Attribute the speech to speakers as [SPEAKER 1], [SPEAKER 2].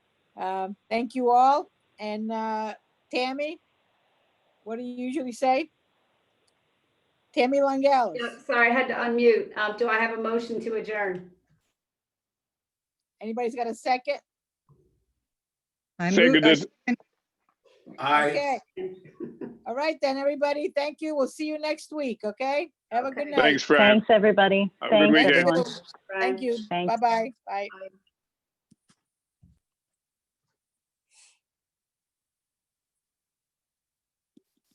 [SPEAKER 1] Um, Thank you all. And uh, Tammy, what do you usually say? Tammy
[SPEAKER 2] Yeah,
[SPEAKER 1] Langelis.
[SPEAKER 2] Sorry, I had to unmute. Um, Do I have a motion to adjourn?
[SPEAKER 1] Anybody's got a second?
[SPEAKER 3] I move, I
[SPEAKER 4] Seconded.
[SPEAKER 5] Aye.
[SPEAKER 1] Okay. All right then, everybody. Thank you. We'll see you next week, okay? Have a good
[SPEAKER 2] Okay.
[SPEAKER 1] night.
[SPEAKER 4] Thanks, Fran.
[SPEAKER 6] Thanks, everybody.
[SPEAKER 4] Have a good
[SPEAKER 6] Thanks,
[SPEAKER 4] weekend.
[SPEAKER 6] everyone.
[SPEAKER 1] Thank you.
[SPEAKER 6] Thanks.
[SPEAKER 1] Bye-bye. Bye.
[SPEAKER 2] Bye.